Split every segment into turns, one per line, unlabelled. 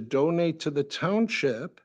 to donate to the township,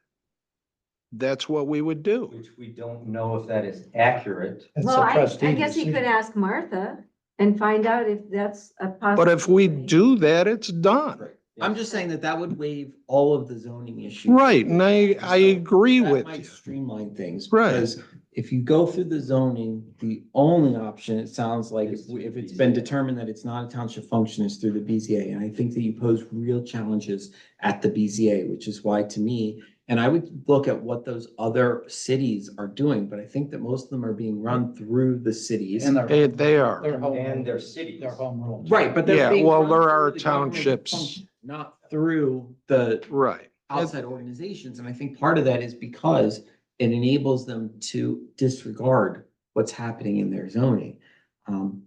that's what we would do.
which we don't know if that is accurate.
It's
Well,
a
I,
trustee
I guess you could
decision.
ask Martha and find out if that's a possibility.
But if we do that, it's done.
I'm just saying that that would waive all of the zoning issues.
Right, and I, I agree
That
with
might
you.
Streamline things.
Right.
Because if you go through the zoning, the only option, it sounds like, if
Is
we- if it's
BZA.
been determined that it's not a township function, is through the BZA. And I think that you pose real challenges at the BZA, which is why to me, and I would look at what those other cities are doing, but I think that most of them are being run through the cities.
And
They,
their,
they are.
their home.
And their
their
cities.
home rules.
Right, but they're
Yeah,
being
well,
run
there
through
are
the government
townships.
function, Not through the
Right.
outside organizations. And I think part of that is because it enables them to disregard what's happening in their zoning. Um,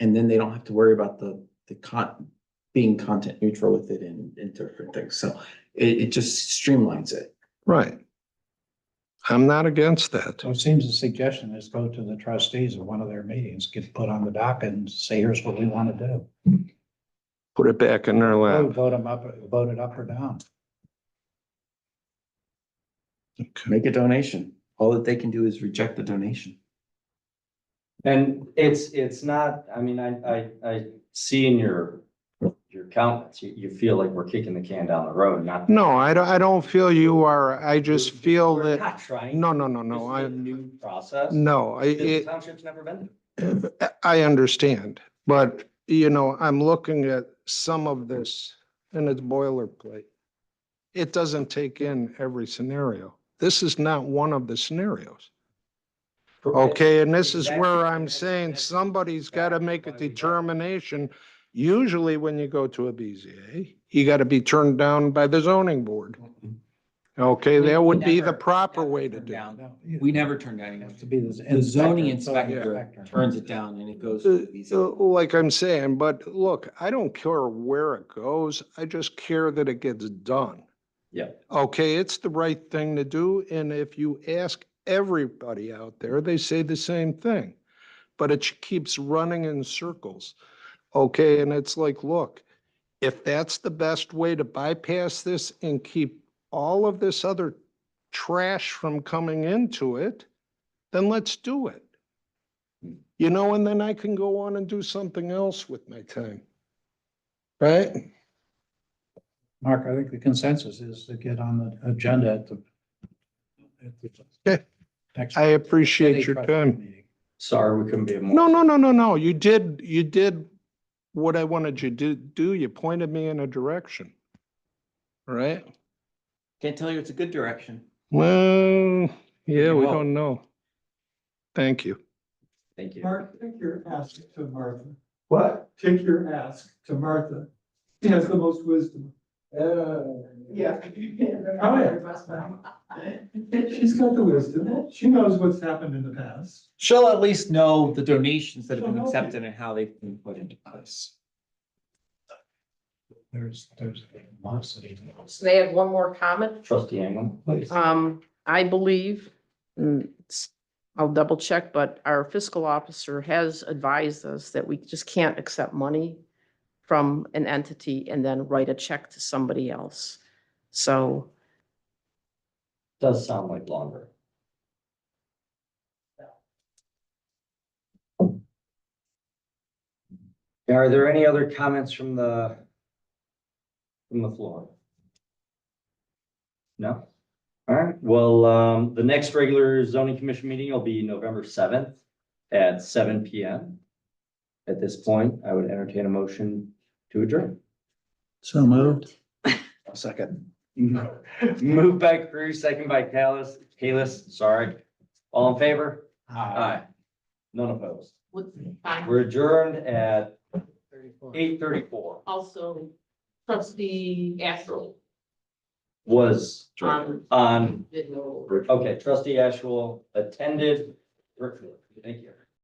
and then they don't have to worry about the, the con, being content neutral with it and, and different things. So it, it just streamlines it.
Right. I'm not against that.
So it seems the suggestion is go to the trustees at one of their meetings, get put on the dock and say, here's what we want to do.
Put it back in their
Oh,
lap.
Vote them up, vote it up or down.
Make a donation. All that they can do is reject the donation.
And it's, it's not, I mean, I, I, I see in your, your comments, you, you feel like we're kicking the can down the road, not.
No, I don't, I don't feel you are. I just feel
We're
that,
Not trying.
no, no, no,
This
no,
is a
I,
New process.
no, I,
that The
it,
township's never been
I understand. But, you know, I'm looking at some of this and it's boilerplate. It doesn't take in every scenario. This is not one of the scenarios.
to.
Okay, and this is
Exactly.
where I'm saying
That's-
somebody's got to make a
Why we got it.
determination. Usually when you go to a BZA, you got to be turned down by the zoning board. Okay,
We-
that
we
would be the
never-
proper
never
way to
turn
do
down.
No,
We never turn down anyone.
Has to be this.
The
Oh,
zoning
zoning
inspector turns it down and it goes. to the
it. Uh, uh,
BZA.
Like I'm saying, but look, I don't care where it goes. I just care that it gets done.
Yeah.
Okay, it's the right thing to do, and if you ask everybody out there, they say the same thing. But it keeps running in circles. Okay, and it's like, look, if that's the best way to bypass this and keep all of this other trash from coming into it, then let's do it. You know, and then I can go on and do something else with my time. Right?
Mark, I think the consensus is to get on the agenda at the. at the
Okay.
next
I appreciate
city
your
trustee
time.
meeting.
Sorry, we couldn't be more.
No, no, no, no, no. You did, you did what I wanted you to do. You pointed me in a direction. Right?
Can't tell you it's a good direction.
Well, yeah,
You
we
hope.
don't know. Thank you.
Thank you.
Mark, take your ask to Martha.
What?
Take your ask to Martha. She has the most wisdom. Eh. Yeah. Oh, yeah. She's got the wisdom. She knows what's happened in the past.
She'll at least know the donations that have been accepted and how they've been put into place.
There's, there's lots of.
So they had one more comment.
Trustee Anglin, please.
Um, I believe, mm, it's- I'll double check, but our fiscal officer has advised us that we just can't accept money from an entity and then write a check to somebody else. So
Does sound like longer. Are there any other comments from the, from the floor? No? All right, well, um, the next regular zoning commission meeting will be November seventh at seven P M. At this point, I would entertain a motion to adjourn.
So moved. Second.
Moved by Cruz, second by Callis, Kalis, sorry. All in favor? Aye. None opposed. We're adjourned at eight thirty-four
also trustee Astral
was
on
on,
video.
okay, trustee Ashwell attended virtually. Thank you.